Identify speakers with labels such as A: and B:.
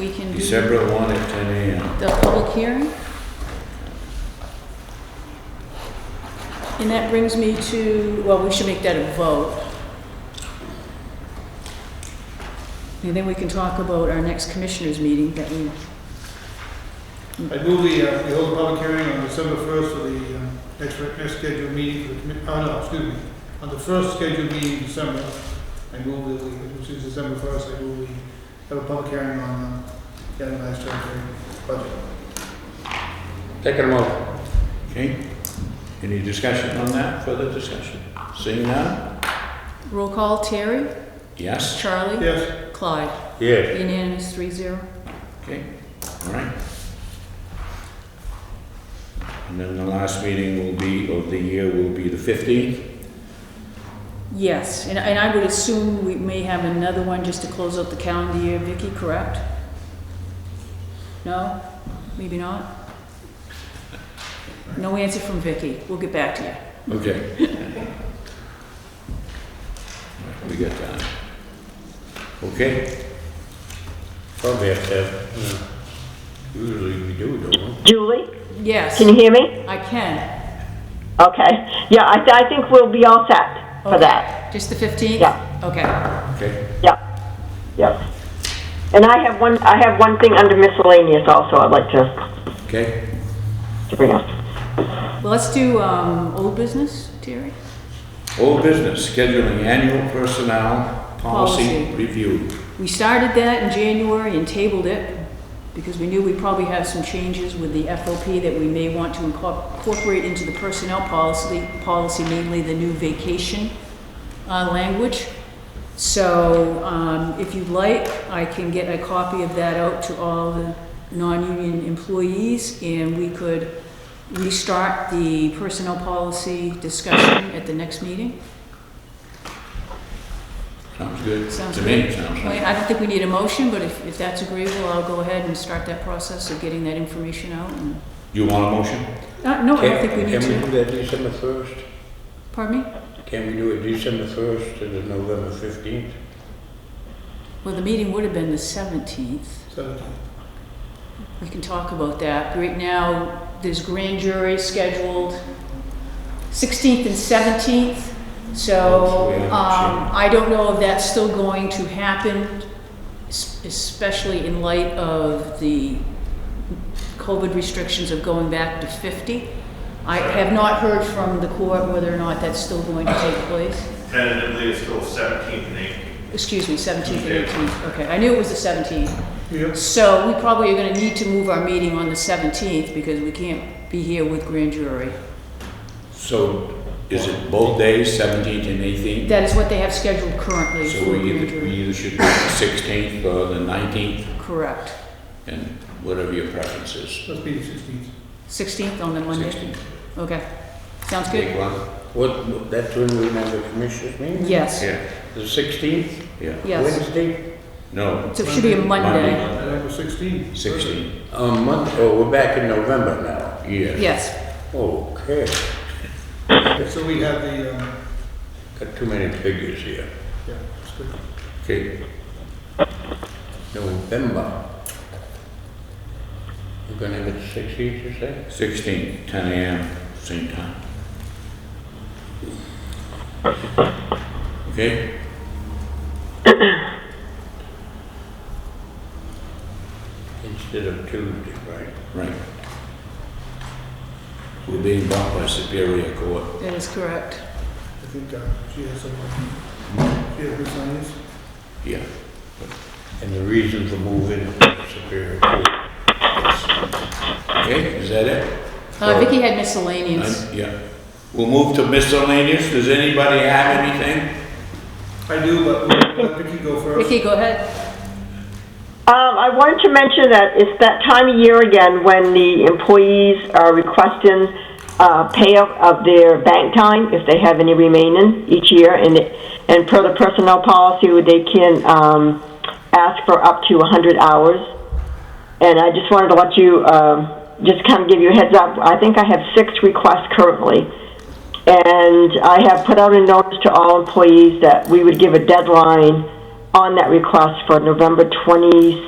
A: December one at ten AM.
B: The public hearing? And that brings me to, well, we should make that a vote. And then we can talk about our next commissioners' meeting that we,
C: I move we, uh, we hold a public hearing on December first for the, uh, next, reg- next scheduled meeting for the commi, oh, no, excuse me, on the first scheduled meeting in December, I move that we, which is December first, I move we have a public hearing on, uh, the last treasury budget.
D: Second motion.
A: Okay. Any discussion on that? Further discussion? Seeing none?
B: roll call, Terry,
A: Yes?
B: Charlie,
C: Yes,
B: Clyde.
D: Yes.
B: Unanimous, three zero.
A: Okay, all right. And then the last meeting will be, of the year, will be the fifteenth?
B: Yes, and, and I would assume we may have another one just to close out the calendar year, Vicky, correct? No? Maybe not? No answer from Vicky. We'll get back to you.
A: Okay. We got that. Okay,
D: Probably have to have, you know, usually we do, don't we?
E: Julie,
B: Yes,
E: can you hear me?
B: I can.
E: Okay. Yeah, I, I think we'll be all set for
B: Okay.
E: that.
B: Just the 15th?
E: Yeah.
B: Okay.
A: okay,
E: Yep. Yep. And I have one, I have one thing under miscellaneous also I'd like to,
A: okay.
E: to bring up.
B: Well, let's do, um, old business, Terry?
A: Old business, scheduling annual personnel policy
B: Policy.
A: review.
B: We started that in January and tabled it because we knew we probably have some changes with the FOP that we may want to incorpor- incorporate into the personnel policy, policy mainly the new vacation uh, language. So um, if you'd like, I can get a copy of that out to all the non-union employees and we could restart the personnel policy discussion at the next meeting.
A: Sounds good
B: Sounds
A: to me,
B: good.
A: sounds
B: Well,
A: good.
B: I don't think we need a motion, but if, if that's agreeable, I'll go ahead and start that process of getting that information out and,
A: You want a motion?
B: Uh, no, I don't think we need
D: Can
B: to.
D: we do that December first?
B: Pardon me?
D: Can we do it December first to the November fifteenth?
B: Well, the meeting would have been the seventeenth.
C: seventeen.
B: We can talk about that. Right now, there's grand jury scheduled sixteenth and seventeenth. So,
A: Yeah,
B: um, I don't know if that's still going to happen, es- especially in light of the COVID restrictions of going back to fifty. I have not heard from the court whether or not that's still going to take place.
F: Tentatively, it's still 17th and 18th.
B: Excuse me, seventeenth and eighteenth. Okay, I knew it was the seventeenth.
C: Yep.
B: So we probably are gonna need to move our meeting on the seventeenth because we can't be here with grand jury.
A: So is it both days, seventeenth and eighteenth?
B: That is what they have scheduled currently
A: So
B: for
A: we
B: grand
A: either, we
B: jury.
A: either should do the sixteenth or the nineteenth,
B: Correct.
A: and whatever your preference is.
C: Let's be the sixteenth.
B: Sixteenth on the Monday?
A: 16th.
B: Okay. Sounds
A: Take
B: good?
A: one?
D: What, that's when we have the commissioners meeting?
B: Yes,
A: Yeah,
D: The sixteenth?
A: yeah.
B: yes.
D: Wednesday?
A: No,
B: So it should be a Monday.
A: Monday.
C: November sixteenth.
A: sixteen,
D: Um, month, oh, we're back in November now.
A: yeah.
B: Yes.
D: Okay,
C: So we have the, um,
D: got too many figures here.
C: yeah, it's good.
A: Okay,
D: November. We're gonna have it sixteenth, you say?
A: sixteen, ten AM, same time. Okay?
D: Instead of Tuesday, right?
A: Right. We're being bought by Superior Court.
B: That is correct.
C: I think, uh, she has some, she has miscellaneous.
A: Yeah.
D: And the reason for moving Superior Court.
A: Okay, is that it?
B: Uh, Vicky had miscellaneous.
A: I'm- Yeah. We'll move to miscellaneous. Does anybody have anything?
C: I do, but we'll let Vicky go first.
B: Vicky, go ahead.
E: Um, I wanted to mention that it's that time of year again when the employees are requesting, uh, payout of their bank time if they have any remaining each year. And, it- and per the personnel policy, they can, um, ask for up to hundred hours. And I just wanted to let you, um, just kind of give you a heads up. I think I have six requests currently. And I have put out a notice to all employees that we would give a deadline on that request for November 20